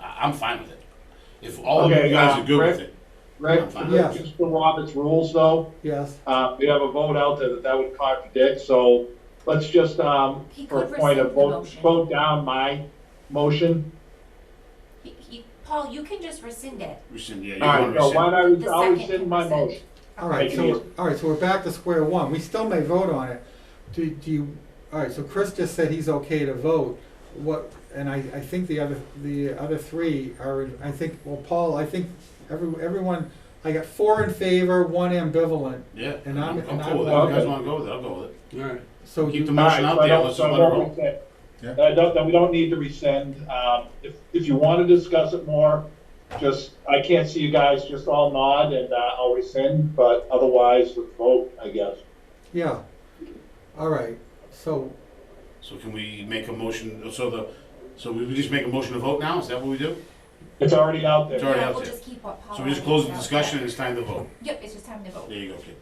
I- I'm fine with it. If all of Okay, you guys uh, are good with Rick? it. Rick, I'm fine. Yes. just the Robert's rules though, Yes, uh, we have a vote out there that that would contradict, so let's just, um, He for a could point of rescind the vote, motion. vote down my motion. He- he- Paul, you can just rescind it. Rescind, yeah, you All right, want to so why rescind. not, The I'll second rescind my consent. motion. all right, Make it so, easy. we're- all right, so we're back to square one, we still may vote on it. Do, do you, all right, so Chris just said he's okay to vote, what, and I, I think the other, the other three are, I think, well, Paul, I think every, everyone, I got four in favor, one ambivalent, Yeah, And I'm- I'm, I'm and cool with it. I'm- If you guys want to go with it, I'll go with it. Alright, so Keep the you, motion All out right, there, so let's I just let it don't- roll. so I don't rescind. I don't, that Uh, we don't need to rescind, um, if, if you wanna discuss it more, just, I can't see you guys, just all nod and, uh, I'll rescind, but otherwise, let's vote, I guess. yeah. All right, so, So can we make a motion, so the, so we we just make a motion to vote now, is that what we do? It's already out there. It's already Yeah, out we'll there. just keep what Paul. So we just already close the said. discussion and it's time to vote. Yep, it's just time to vote. There you go, kid.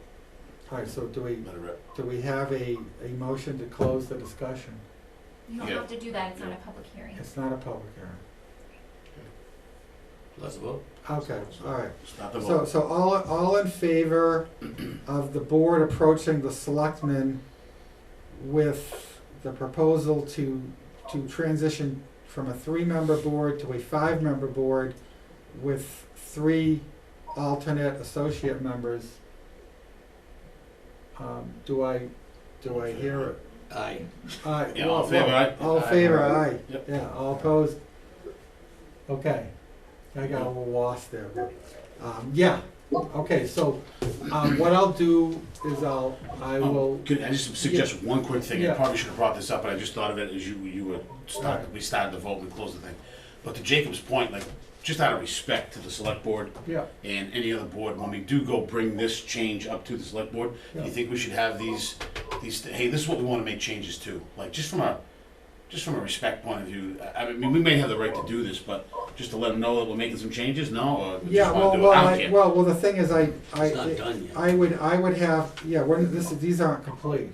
all right, so do we, Let it rip. do we have a, a motion to close the discussion? You don't Yeah. have to do that, it's not Yeah. a public hearing. It's not a public hearing. let's vote. Okay, all right. Start the So, vote. so all, all in favor of the board approaching the selectmen with the proposal to, to transition from a three-member board to a five-member board with three alternate associate members? Um, do I, do I hear it? Aye. Aye. Yeah, all in favor, aye? All in favor, aye. Yep. Yeah, all opposed? Okay. I got a little lost there, but, um, yeah, okay, so, um, what I'll do is I'll, I Um, will, Could I just suggest one quick thing? I Yeah. probably should have brought this up, but I just thought of it as you, you were, start- Alright. we started the vote and closed the thing. But to Jacob's point, like, just out of respect to the select board yeah, and any other board, when we do go bring this change up to the select board, do you Yeah. think we should have these, these, hey, this is what we wanna make changes to? Like, just from a, just from a respect point of view, I, I mean, we may have the right to do this, but just to let them know that we're making some changes, no, or we yeah, just well, wanna do well, it, I don't I, care. well, well, the thing is, I, I. It's not done yet. I would, I would have, yeah, we're, this, is- these aren't complete.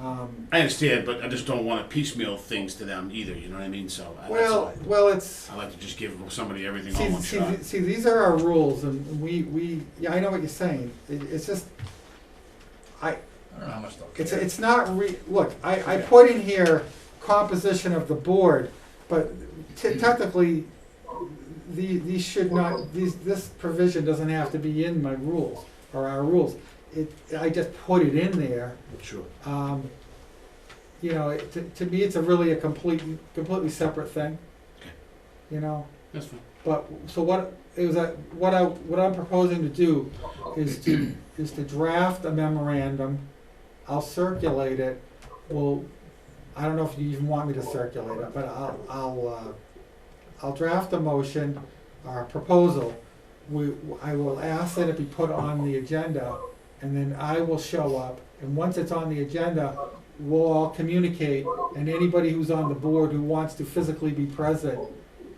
Um, I understand, but I just don't wanna piecemeal things to them either, you know what I mean, so. I- that's all well, I- well, it's. I like to just give somebody everything all See, one see, shot. th- see, these are our rules, and we, we, yeah, I know what you're saying. It, it's just, I. I don't know how much. It's, it's not re, look, I, I put in here composition of the board, but te- technically, the, these should not, these, this provision doesn't have to be in my rules, or our rules. It, I just put it in there, Sure. um, you know, it- to, to me, it's a really a complete, completely separate thing. Okay. You know? That's fine. But, so what, it was, a- what I, what I'm proposing to do is to, is to draft a memorandum. I'll circulate it, well, I don't know if you even want me to circulate it, but I'll, I'll, uh, I'll draft a motion or a proposal. We, I will ask that it be put on the agenda, and then I will show up, and once it's on the agenda, we'll all communicate, and anybody who's on the board who wants to physically be present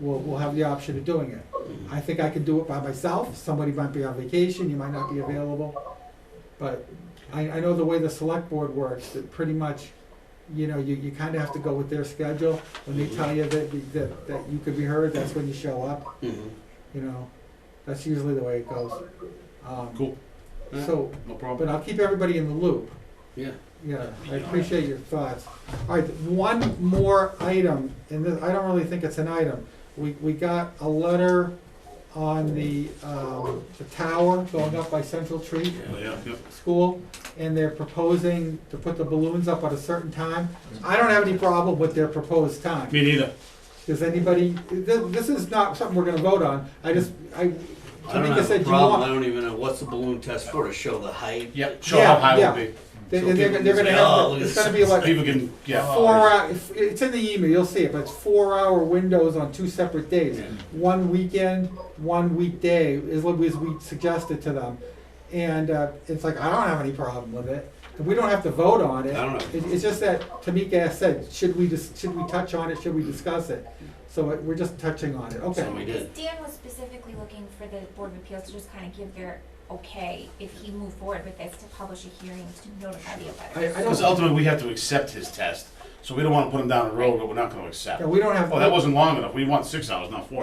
will, will have the option of doing it. I think I can do it by myself, somebody might be on vacation, you might not be available, but I, I know the way the select board works, that pretty much, you know, you, you kinda have to go with their schedule, when they tell you that, that, that you could be heard, that's when you show up, you know, that's usually the way it goes. Um, Cool. So, No but problem. I'll keep everybody in the loop. Yeah. Yeah, I appreciate your thoughts. All right, one more item, and this, I don't really think it's an item. We, we got a letter on the, um, the tower going up by Central Tree Yeah, yeah, yeah. School, and they're proposing to put the balloons up at a certain time. I don't have any problem with their proposed time. Me neither. Does anybody, this, this is not something we're gonna vote on. I just, I, I don't Tamika have a said you problem, I want. don't even know, what's the balloon test for, to show the height? Yep, show how Yeah, high yeah. it would They, So are people they're can gonna say, "Oh, have, look it's at gonna be like be. People can, yeah. four hour, it's in the email, you'll see it, but it's four hour windows on two separate days. One weekend, one weekday, is what we, as we suggested to them. And, uh, it's like, I don't have any problem with it, and we don't have to vote on it. I don't know. It, it's just that Tamika said, should we just, should we touch on it, should we discuss it? So it- we're just touching on it, okay. So we Because did. Dan was specifically looking for the Board of Appeals to just kind of give their okay if he moved forward with this to publish a hearing to notify the I, abutters. I Because don't, ultimately, we have to accept his test, so we don't wanna put him down a road that we're not gonna accept. yeah, we don't have. Well, that wasn't long enough, we want six hours, not four